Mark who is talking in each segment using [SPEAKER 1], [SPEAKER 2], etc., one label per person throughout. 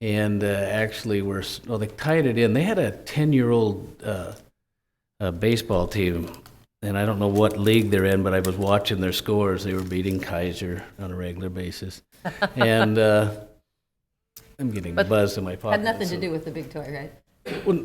[SPEAKER 1] and uh, actually were s- well, they tied it in. They had a ten-year-old uh, uh, baseball team, and I don't know what league they're in, but I was watching their scores. They were beating Kaiser on a regular basis, and uh, I'm getting
[SPEAKER 2] But
[SPEAKER 1] buzzed in my pocket.
[SPEAKER 2] Had nothing to
[SPEAKER 1] so-
[SPEAKER 2] do with the big toy, right?
[SPEAKER 1] Well,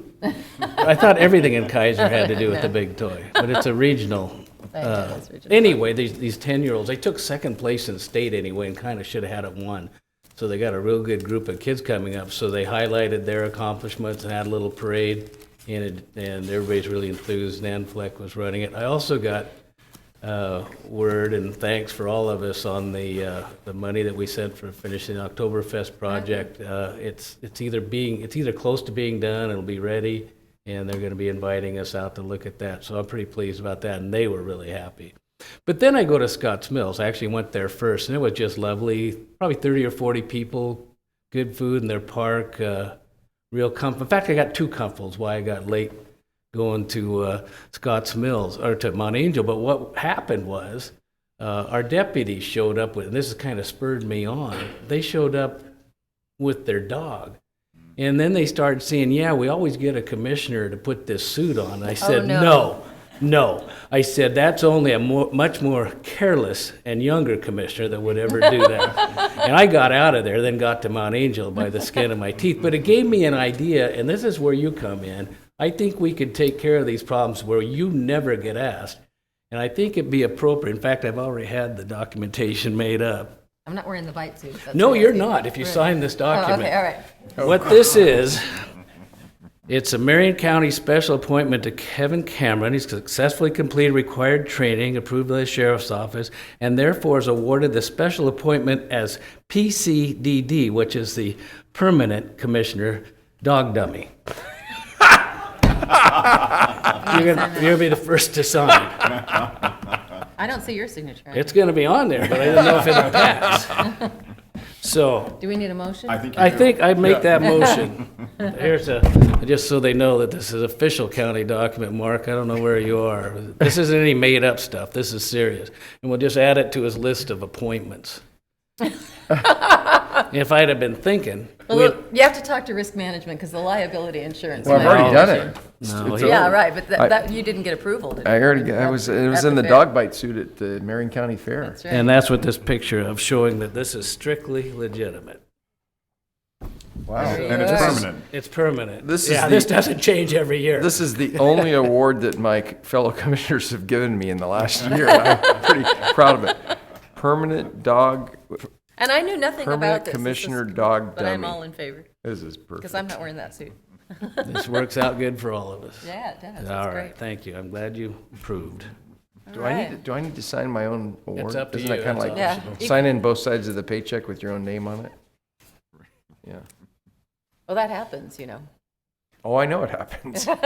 [SPEAKER 1] I thought everything in Kaiser had to do with the big toy, but it's a regional.
[SPEAKER 2] I know,
[SPEAKER 1] uh,
[SPEAKER 2] it's regional.
[SPEAKER 1] Anyway, these, these 10-year-olds, they took second place in state anyway and kind of should have had it won. So they got a real good group of kids coming up, so they highlighted their accomplishments and had a little parade, and, it- and everybody's really enthused. Nan Fleck was running it. I also got uh, word and thanks for all of us on the, uh, the money that we sent for finishing the Oktoberfest project. Uh, It's, it's either being, it's either close to being done, it'll be ready, and they're going to be inviting us out to look at that. So I'm pretty pleased about that, and they were really happy. But then I go to Scotts Mills. I actually went there first, and it was just lovely. Probably 30 or 40 people, good food in their park, uh, real comfort. In fact, I got two comforts why I got late going to uh, Scotts Mills or to Mount Angel. But what happened was uh, our deputies showed up with, and this has kind of spurred me on. They showed up with their dog. And then they started saying, Yeah, we always get a commissioner to put this suit on. I said,
[SPEAKER 2] Oh, no.
[SPEAKER 1] No, no. I said, That's only a more, much more careless and younger commissioner that would ever do that. and I got out of there, then got to Mount Angel by the skin of my teeth. But it gave me an idea, and this is where you come in. I think we could take care of these problems where you never get asked. And I think it'd be appropriate. In fact, I've already had the documentation made up
[SPEAKER 2] I'm not wearing the bite suit. that's
[SPEAKER 1] no,
[SPEAKER 2] what I
[SPEAKER 1] you're
[SPEAKER 2] see.
[SPEAKER 1] not if you
[SPEAKER 2] Right.
[SPEAKER 1] sign this
[SPEAKER 2] Oh,
[SPEAKER 1] document.
[SPEAKER 2] okay, all right.
[SPEAKER 1] What this is, it's a Marion County special appointment to Kevin Cameron. He's successfully completed required training approved by the sheriff's office and therefore is awarded the special appointment as PCDD, which is the Permanent Commissioner Dog Dummy. You're gonna, you're gonna be the first to sign.
[SPEAKER 2] I don't see your signature. on it.
[SPEAKER 1] It's gonna be on there, but I don't know if it'll pass. So,
[SPEAKER 2] Do we need a motion?
[SPEAKER 3] I think you
[SPEAKER 1] I
[SPEAKER 3] do.
[SPEAKER 1] think I make that motion. Here's a, just so they know that this is official county document, Mark, I don't know where you are. This isn't any made-up stuff, this is serious. And we'll just add it to his list of appointments. If I'd have been thinking,
[SPEAKER 2] Well,
[SPEAKER 1] we-
[SPEAKER 2] look, you have to talk to risk management because the liability insurance.
[SPEAKER 4] Well, I've
[SPEAKER 2] might-
[SPEAKER 4] already done it.
[SPEAKER 1] No,
[SPEAKER 4] It's
[SPEAKER 1] he-
[SPEAKER 2] Yeah,
[SPEAKER 4] over.
[SPEAKER 2] right, but that,
[SPEAKER 4] I-
[SPEAKER 2] that, you didn't get approval, did you?
[SPEAKER 4] I already, I was, it was
[SPEAKER 2] That's
[SPEAKER 4] in the
[SPEAKER 2] fair.
[SPEAKER 4] dog bite suit at the Marion County Fair.
[SPEAKER 2] That's
[SPEAKER 1] and
[SPEAKER 2] right.
[SPEAKER 1] that's what this picture of showing that this is strictly legitimate.
[SPEAKER 4] Wow.
[SPEAKER 3] And it's
[SPEAKER 2] Yes.
[SPEAKER 3] permanent.
[SPEAKER 1] It's permanent.
[SPEAKER 4] This is
[SPEAKER 1] Yeah,
[SPEAKER 4] the-
[SPEAKER 1] this doesn't change every year.
[SPEAKER 4] This is the only award that my fellow commissioners have given me in the last year. I'm pretty proud of it. Permanent dog,
[SPEAKER 2] And I knew nothing about this.
[SPEAKER 4] permanent
[SPEAKER 2] This is-
[SPEAKER 4] commissioner dog
[SPEAKER 2] But I'm all
[SPEAKER 4] dummy.
[SPEAKER 2] in favor
[SPEAKER 4] This is
[SPEAKER 2] because
[SPEAKER 4] perfect.
[SPEAKER 2] I'm not wearing that suit.
[SPEAKER 1] This works out good for all of us.
[SPEAKER 2] Yeah, it does. That's
[SPEAKER 1] All right,
[SPEAKER 2] great.
[SPEAKER 1] thank you, I'm glad you approved.
[SPEAKER 4] Do I need, to- do I need to sign my own award?
[SPEAKER 1] up to
[SPEAKER 4] Isn't that
[SPEAKER 1] you,
[SPEAKER 4] kind of
[SPEAKER 1] that's
[SPEAKER 4] like,
[SPEAKER 2] optional. Yeah.
[SPEAKER 4] sign in both sides of the paycheck with your own name on it? Yeah.
[SPEAKER 2] Well, that happens, you know.
[SPEAKER 4] Oh, I know it happens.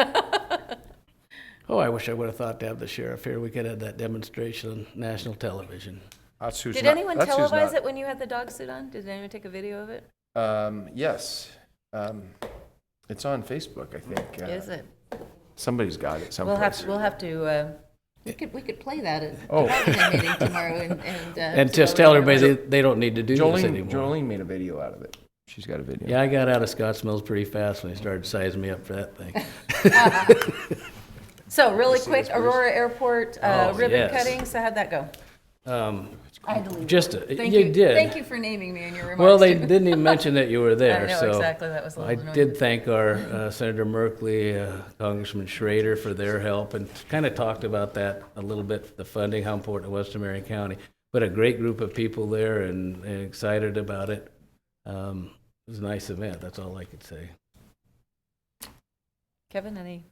[SPEAKER 1] Oh, I wish I would have thought to have the sheriff here. We could have that demonstration on national television.
[SPEAKER 4] That's who's
[SPEAKER 2] Did
[SPEAKER 4] not-
[SPEAKER 2] anyone
[SPEAKER 4] that's who's
[SPEAKER 2] televise
[SPEAKER 4] not-
[SPEAKER 2] it when you had the dog suit on? Did anyone take a video of it?
[SPEAKER 4] Um, yes. Um, it's on Facebook, I think. Uh,
[SPEAKER 2] Is it?
[SPEAKER 4] Somebody's got it
[SPEAKER 2] We'll
[SPEAKER 4] someplace.
[SPEAKER 2] have, to. we'll have to, uh, we could, we could play that at the
[SPEAKER 4] Oh.
[SPEAKER 2] bargaining meeting tomorrow and, and. uh,
[SPEAKER 1] And
[SPEAKER 2] see
[SPEAKER 1] just
[SPEAKER 2] what
[SPEAKER 1] tell
[SPEAKER 2] we
[SPEAKER 1] everybody
[SPEAKER 2] can-
[SPEAKER 1] they, they don't need to do this
[SPEAKER 4] Jolene,
[SPEAKER 1] anymore.
[SPEAKER 4] Jolene made a video out of it. She's got a video.
[SPEAKER 1] Yeah, I got out of Scotts Mills pretty fast when they started sizing me up for that thing.
[SPEAKER 2] So really quick, Aurora Airport uh,
[SPEAKER 1] Oh,
[SPEAKER 2] ribbon
[SPEAKER 1] yes.
[SPEAKER 2] cutting, so how'd that go?
[SPEAKER 1] Um,
[SPEAKER 2] I had to leave.
[SPEAKER 1] Just, a-
[SPEAKER 2] Thank
[SPEAKER 1] you did.
[SPEAKER 2] Thank you for naming me in your remarks.
[SPEAKER 1] Well, they
[SPEAKER 2] too.
[SPEAKER 1] didn't even mention that you were there,
[SPEAKER 2] know,
[SPEAKER 1] so.
[SPEAKER 2] exactly. That was a little
[SPEAKER 1] I
[SPEAKER 2] annoying.
[SPEAKER 1] did thank our uh, Senator Merkley, uh, Congressman Schrader for their help, and kind of talked about that a little bit, the funding, how important it was to Marion County. But a great group of people there and and excited about it. Um, It was a nice event, that's all I could say.
[SPEAKER 2] Kevin, any?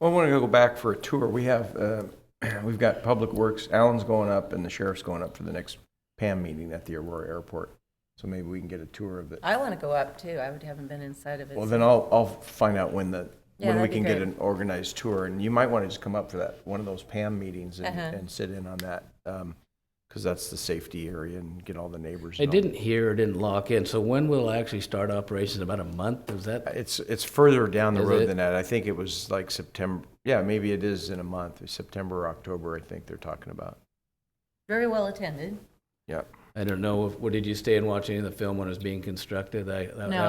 [SPEAKER 4] Well, I want to go back for a tour. We have, uh, we've got Public Works, Alan's going up and the sheriff's going up for the next PAM meeting at the Aurora Airport. So maybe we can get a tour of it.
[SPEAKER 2] I want to go up too. I would haven't been inside of it.
[SPEAKER 4] Well,
[SPEAKER 2] so-
[SPEAKER 4] then I'll, I'll find out when the,
[SPEAKER 2] Yeah,
[SPEAKER 4] when we
[SPEAKER 2] that'd be
[SPEAKER 4] can get
[SPEAKER 2] great.
[SPEAKER 4] an organized tour. And you might want to just come up for that, one of those PAM meetings and,
[SPEAKER 2] Uh-huh.
[SPEAKER 4] and sit in on that. Because that's the safety area and get all the neighbors.
[SPEAKER 1] I
[SPEAKER 4] and all that.
[SPEAKER 1] didn't hear, didn't lock in, so when will I actually start operations? About a month, is that?
[SPEAKER 4] It's, it's further down the
[SPEAKER 1] Is it?
[SPEAKER 4] road than that. I think it was like September, yeah, maybe it is in a month, September or October, I think they're talking about.
[SPEAKER 2] Very well attended.
[SPEAKER 4] Yeah.
[SPEAKER 1] I don't know, what, did you stay and watch any of the film when it was being constructed? I- that-
[SPEAKER 2] No,